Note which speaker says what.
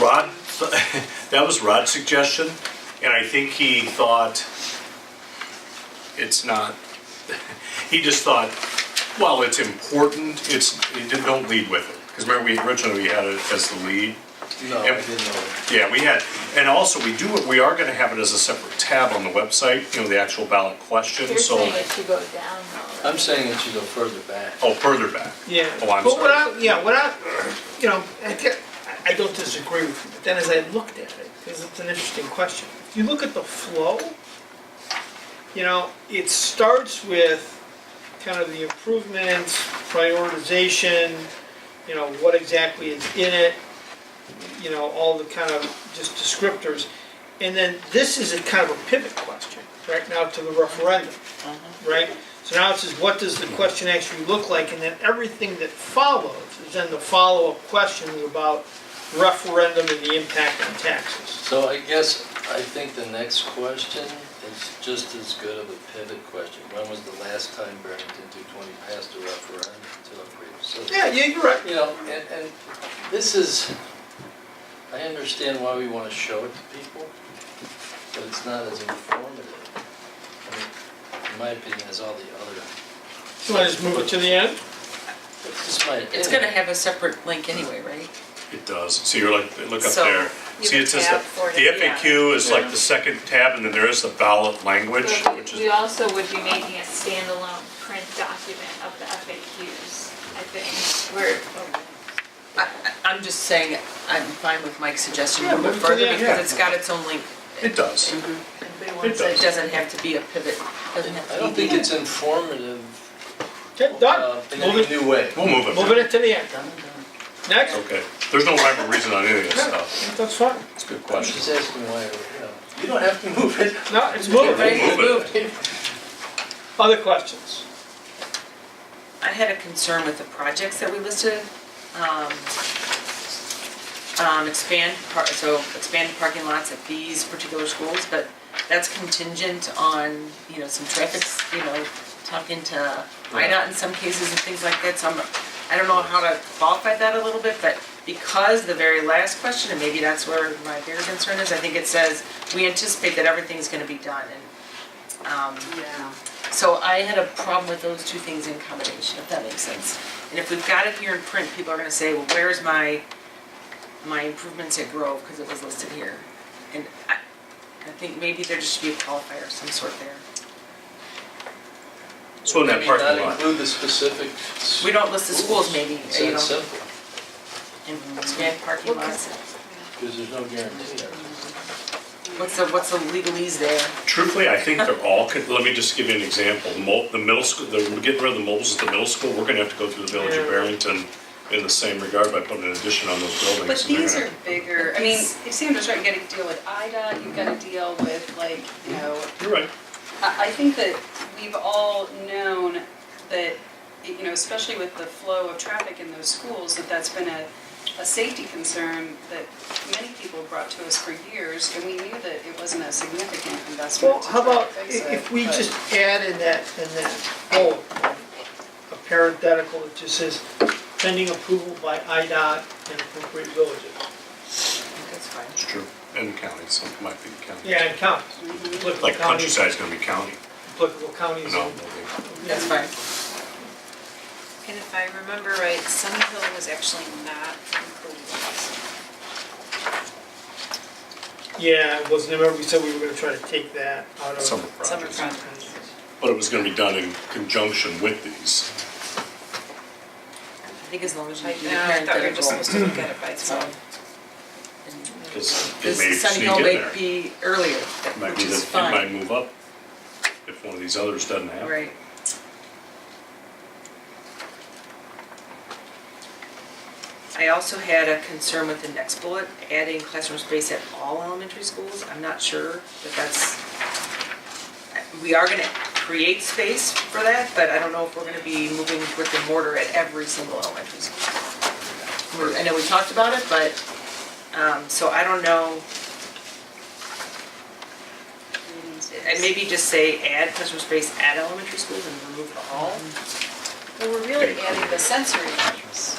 Speaker 1: Rod, that was Rod's suggestion, and I think he thought it's not, he just thought, well, it's important, it's, it didn't- don't lead with it. Because remember, we originally, we had it as the lead.
Speaker 2: No, I didn't know.
Speaker 1: Yeah, we had, and also, we do, we are gonna have it as a separate tab on the website, you know, the actual ballot question,
Speaker 3: You're
Speaker 1: so.
Speaker 3: saying it should go down though.
Speaker 2: I'm saying it should go further back.
Speaker 1: Oh, further back.
Speaker 4: Yeah.
Speaker 1: Oh, I'm
Speaker 4: But what
Speaker 1: sorry.
Speaker 4: I, yeah, what I, you know, I get, I I don't disagree with you, but then as I looked at it, because it's an interesting question. If you look at the flow, you know, it starts with kind of the improvements, prioritization, you know, what exactly is in it, you know, all the kind of just descriptors. And then this is a kind of a pivot question, right now to the referendum right? So now it says, what does the question actually look like? And then everything that follows is then the follow-up questions about referendum and the impact on taxes.
Speaker 2: So I guess, I think the next question is just as good of a pivot question. When was the last time Barrington 220 passed a referendum to upgrade facilities?
Speaker 4: Yeah, yeah, you're right.
Speaker 2: You know, and, and this is, I understand why we want to show it to people, but it's not as informative. I mean, In my opinion, as all the other,
Speaker 4: So I just move it to the end?
Speaker 2: it's just my opinion.
Speaker 5: It's gonna have a separate link anyway, right?
Speaker 1: It does. See, you're like, look up
Speaker 5: So,
Speaker 1: there.
Speaker 3: you
Speaker 1: See,
Speaker 3: can
Speaker 1: it says
Speaker 3: tab
Speaker 1: the-
Speaker 3: for it
Speaker 1: the
Speaker 3: at the end.
Speaker 1: FAQ is like the second tab, and then there is the ballot language,
Speaker 3: But we-
Speaker 1: which
Speaker 3: We
Speaker 1: is,
Speaker 3: also would be making a standalone print document of the FAQs, I think, where, oh,
Speaker 5: I, I- I'm just saying, I'm fine with Mike's suggestion,
Speaker 4: Yeah,
Speaker 5: to move
Speaker 4: move to
Speaker 5: further
Speaker 4: the-
Speaker 5: because
Speaker 1: yeah.
Speaker 5: it's got its own link.
Speaker 1: it does.
Speaker 5: It
Speaker 1: does.
Speaker 5: doesn't have to be a pivot, doesn't have to
Speaker 2: Mm-hmm.
Speaker 5: be.
Speaker 2: I don't think it's informative
Speaker 4: Okay,
Speaker 2: uh,
Speaker 4: done.
Speaker 2: in
Speaker 4: Move
Speaker 2: a
Speaker 4: it,
Speaker 2: new way.
Speaker 1: We'll move it.
Speaker 4: moving it to the end.
Speaker 5: Done, done.
Speaker 4: Next?
Speaker 1: Okay. There's no rhyme or reason on any of this stuff.
Speaker 4: That's fine.
Speaker 1: It's a good
Speaker 2: I'm
Speaker 1: question.
Speaker 2: just asking why, you know, you don't have to move it.
Speaker 4: No, it's moving.
Speaker 5: Right,
Speaker 1: Move it.
Speaker 5: moved.
Speaker 4: Other questions?
Speaker 5: I had a concern with the projects that we listed. um, um, Expand, par- so expand parking lots at these particular schools, but that's contingent on, you know, some traffic, you know, talking to IDOT in some cases and things like that, so I'm, I don't know how to qualify that a little bit, but because the very last question, and maybe that's where my bigger concern is, I think it says, we anticipate that everything's gonna be done, and, um,
Speaker 3: yeah.
Speaker 5: so I had a problem with those two things in combination, if that makes sense. And if we've got it here in print, people are gonna say, well, where's my, my improvements at Grove, because it was listed here. And I, I think maybe there just should be a qualifier of some sort there.
Speaker 1: So in that
Speaker 2: Maybe
Speaker 1: parking
Speaker 2: Not
Speaker 1: lot,
Speaker 2: include the specific.
Speaker 5: We don't list the schools maybe,
Speaker 2: It's
Speaker 5: you
Speaker 2: that
Speaker 5: know,
Speaker 2: simple,
Speaker 5: and expand parking lots.
Speaker 2: because there's no guarantee there.
Speaker 5: What's the, what's the legalese there?
Speaker 1: truthfully, I think they're all, con- let me just give you an example. The mo- The middle school, the we're getting rid of the mobiles at the middle school, we're gonna have to go through the village of
Speaker 4: Yeah.
Speaker 1: Barrington in the same regard by putting an addition on those buildings.
Speaker 6: But
Speaker 1: and they're
Speaker 6: these
Speaker 1: gonna-
Speaker 6: are bigger, I mean, if Sandra's right, you gotta deal with IDA, you've gotta deal with like, you know,
Speaker 1: You're right.
Speaker 6: I, I think that we've all known that, you know, especially with the flow of traffic in those schools, that that's been a, a safety concern that many people brought to us for years, and we knew that it wasn't a significant investment.
Speaker 4: Well,
Speaker 6: to
Speaker 4: how
Speaker 6: try to
Speaker 4: about i-
Speaker 6: fix it,
Speaker 4: if we
Speaker 6: but-
Speaker 4: just add in that, in that bullet, a parenthetical that just says, pending approval by IDOT and appropriate villages.
Speaker 5: I think That's fine.
Speaker 1: It's true. And county, some might be county.
Speaker 4: Yeah, and counties. Applicable
Speaker 1: Like
Speaker 4: counties,
Speaker 1: countryside's gonna be county.
Speaker 4: applicable counties.
Speaker 1: No,
Speaker 4: and-
Speaker 5: That's fine.
Speaker 7: And if I remember right, Sun Hill was actually not included.
Speaker 4: Yeah, it wasn't, remember we said we were gonna try to take that out of.
Speaker 1: summer
Speaker 7: Summer
Speaker 1: projects.
Speaker 7: projects.
Speaker 1: But it was gonna be done in conjunction with these.
Speaker 5: I think as long as you
Speaker 7: Like,
Speaker 5: do the
Speaker 7: no, I thought we were just
Speaker 5: parenthetical,
Speaker 7: supposed to look at it by
Speaker 5: it's fine.
Speaker 7: itself.
Speaker 5: And-
Speaker 1: Because it
Speaker 5: This
Speaker 1: may
Speaker 5: Sunny
Speaker 1: sneak
Speaker 5: Hill
Speaker 1: in
Speaker 5: may
Speaker 1: there.
Speaker 5: be earlier,
Speaker 1: It Might
Speaker 5: which
Speaker 1: be
Speaker 5: is
Speaker 1: that it might
Speaker 5: fine,
Speaker 1: move up if one of these others doesn't happen.
Speaker 5: right? I also had a concern with the next bullet, adding classroom space at all elementary schools. I'm not sure that that's, we are gonna create space for that, but I don't know if we're gonna be moving brick and mortar at every single elementary school. We're- I know we talked about it, but, um, so I don't know.
Speaker 6: Mm-hmm.
Speaker 5: And maybe just say add classroom space at elementary schools and remove the all.
Speaker 7: Well, we're really adding the sensory measures.